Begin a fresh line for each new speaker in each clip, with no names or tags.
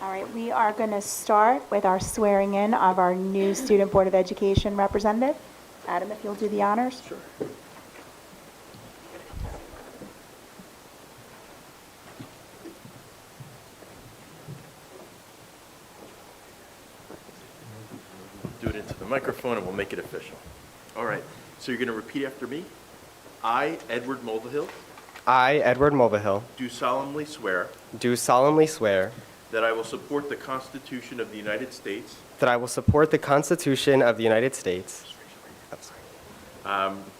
All right, we are going to start with our swearing in of our new Student Board of Education representative. Adam, if you'll do the honors. Sure.
Do it into the microphone and we'll make it official. All right, so you're going to repeat after me. I, Edward Mulvihill,
I, Edward Mulvihill,
do solemnly swear
do solemnly swear
that I will support the Constitution of the United States,
that I will support the Constitution of the United States I'm sorry,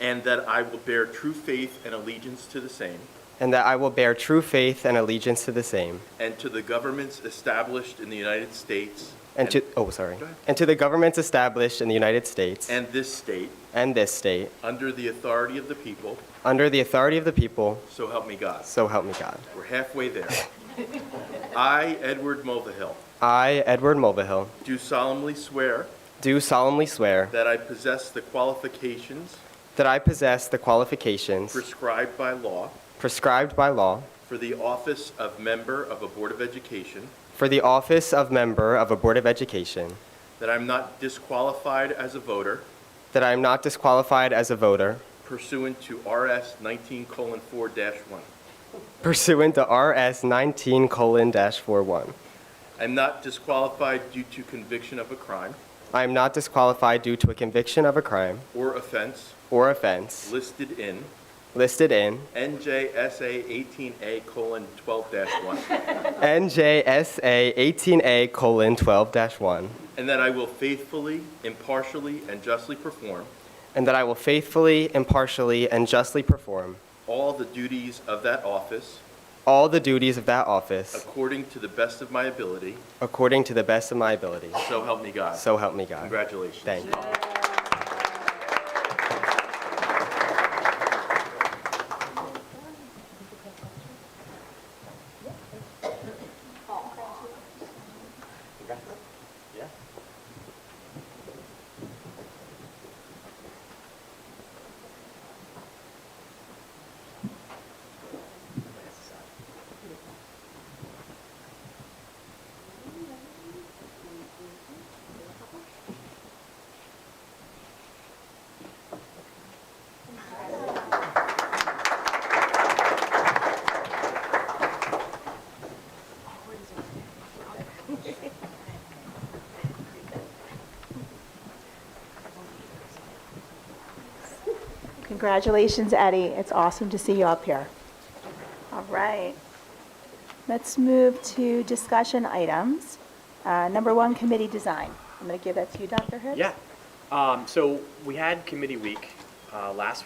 and that I will bear true faith and allegiance to the same,
and that I will bear true faith and allegiance to the same
and to the governments established in the United States
and to, oh, sorry,
Go ahead.
and to the governments established in the United States
and this state,
and this state
under the authority of the people,
under the authority of the people,
so help me God.
so help me God.
We're halfway there. I, Edward Mulvihill,
I, Edward Mulvihill,
do solemnly swear
do solemnly swear
that I possess the qualifications
that I possess the qualifications
prescribed by law
prescribed by law
for the office of member of a Board of Education,
for the office of member of a Board of Education,
that I'm not disqualified as a voter
that I am not disqualified as a voter
pursuant to RS 19:4-1.
pursuant to RS 19 colon dash 41.
I'm not disqualified due to conviction of a crime
I am not disqualified due to a conviction of a crime
or offense
or offense
listed in
listed in
NJSA 18A:12-1,
NJSA 18A colon 12 dash 1,
and that I will faithfully, impartially, and justly perform
and that I will faithfully, impartially, and justly perform
all the duties of that office
all the duties of that office
according to the best of my ability,
according to the best of my ability.
so help me God.
So help me God.
Congratulations.
Thank you.
Congratulations, Eddie. It's awesome to see you up here. All right. Let's move to discussion items. Uh, Number one, committee design. I'm going to give that to you, Dr. Hibbs.
Yeah. Um, so we had committee week uh, last